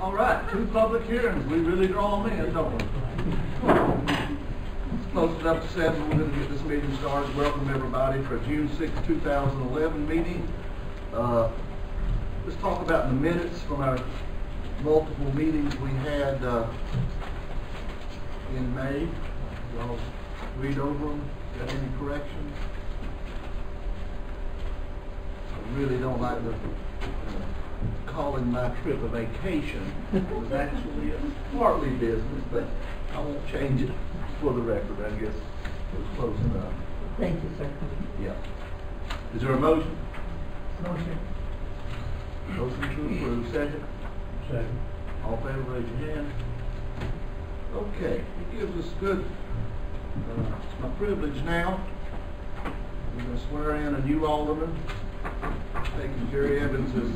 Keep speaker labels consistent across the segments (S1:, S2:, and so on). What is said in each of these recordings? S1: All right, two public hearings, we really draw them in, don't we? Let's Close it up to seven, we're gonna get this meeting started. Welcome everybody for June sixth, two thousand eleven meeting. Uh, Let's talk about the minutes from our multiple meetings we had uh, in May. Y'all read over them, got any corrections? I really don't like the, uh, calling my trip a vacation. It was actually a partly business, but I won't change it for the record, I guess. It was close enough,
S2: Thank you, sir.
S1: yeah. Is there a motion?
S2: Motion.
S1: Motion to approve, second?
S3: Second.
S1: All in favor, raise your hand. Okay, it gives us good, uh, it's my privilege now. We're gonna swear in a new alderman, taking Jerry Evans's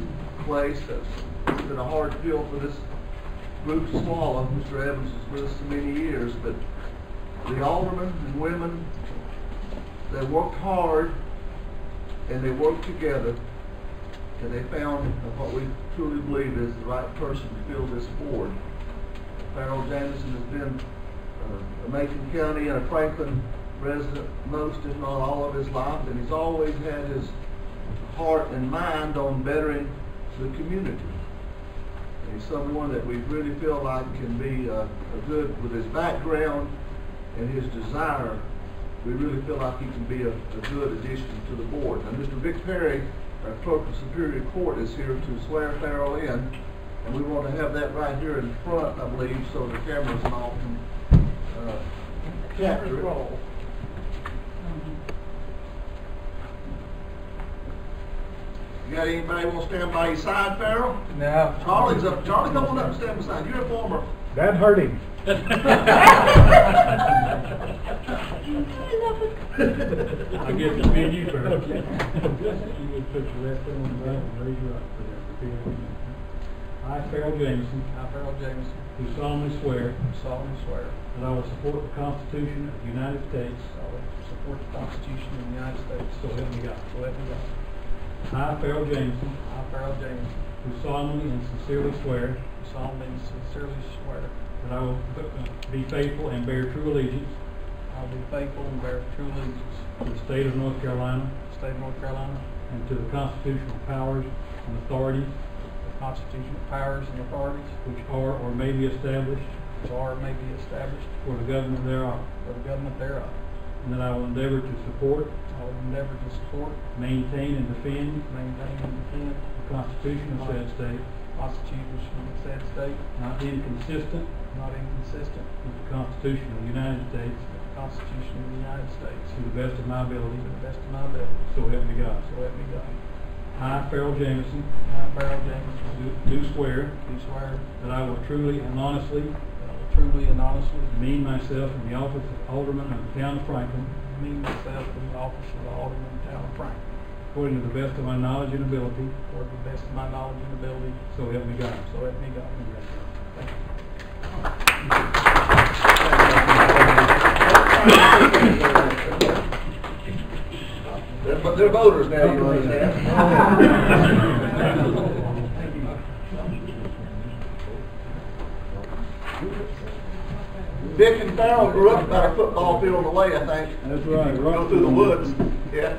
S1: place. That's it's been a hard pill for this group to swallow. Mr. Evans has been with us so many years, but the aldermen and women, they worked hard and they worked together and they found what we truly believe is the right person to fill this board. Farrell Jamison has been uh, a Macon County and a Franklin resident most, if not all of his life, and he's always had his heart and mind on bettering the community. And he's someone that we really feel like can be uh, a good, with his background and his desire, we really feel like he can be a, a good addition to the board. Now, Mr. Vic Perry, our clerk of Superior Court, is here to swear Farrell in, and we want to have that right here in front, I believe, so the cameras and all can, uh, capture it. You got anybody want to stand by your side, Farrell?
S3: No.
S1: Charlie's up, Charlie, come on up and stand beside, you're a former.
S3: That hurt him. I guess it's me and you first. You would put your left hand on the Bible and raise your right for that. Repeat after me. I, Farrell Jameson,
S4: I, Harold Jameson,
S3: do solemnly swear
S4: do solemnly swear
S3: that I will support the Constitution of the United States,
S4: that I will support the Constitution of the United States.
S3: so help me God.
S4: So help me God.
S3: I, Farrell Jameson,
S4: I, Harold Jameson,
S3: do solemnly and sincerely swear
S4: do solemnly and sincerely swear
S3: that I will uh, be faithful and bear true allegiance
S4: I will be faithful and bear true allegiance
S3: to the state of North Carolina
S4: to the state of North Carolina,
S3: and to the constitutional powers and authorities
S4: the constitutional powers and authorities
S3: which are or may be established
S4: which are or may be established
S3: for the government thereof,
S4: for the government thereof.
S3: and that I will endeavor to support,
S4: I will endeavor to support,
S3: maintain, and defend
S4: maintain, and defend
S3: the Constitution of said state,
S4: the Constitution of the said state,
S3: not inconsistent
S4: not inconsistent
S3: with the Constitution of the United States,
S4: with the Constitution of the United States,
S3: to the best of my ability,
S4: to the best of my ability.
S3: so help me God.
S4: So help me God.
S3: I, Farrell Jameson,
S4: I, Harold Jameson,
S3: do- do swear
S4: do swear
S3: that I will truly and honestly
S4: that I will truly and honestly
S3: demean myself in the office of Alderman of the town of Franklin,
S4: demean myself in the office of the Alderman of the Town of Franklin,
S3: according to the best of my knowledge and ability,
S4: according to the best of my knowledge and ability,
S3: so help me God.
S4: so help me God. Thank you.
S1: They're, vo- they're voters now, you understand? Dick and Farrell grew up about a football field away, I think.
S3: That's right.
S1: Go through the woods, yeah.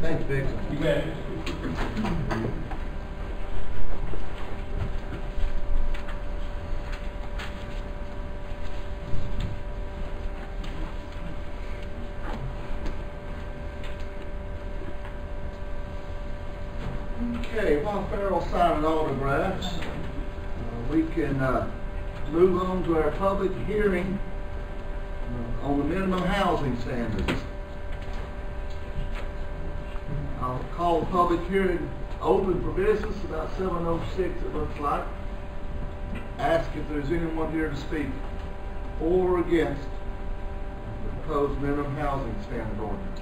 S1: Thanks, Dick.
S3: You bet.
S1: Okay, while Farrell signing autographs, uh, we can uh, move on to our public hearing uh, on the minimum housing standards. I'll call the public hearing open for business about seven oh six, it looks like. Ask if there's anyone here to speak for or against the proposed minimum housing standard ordinance.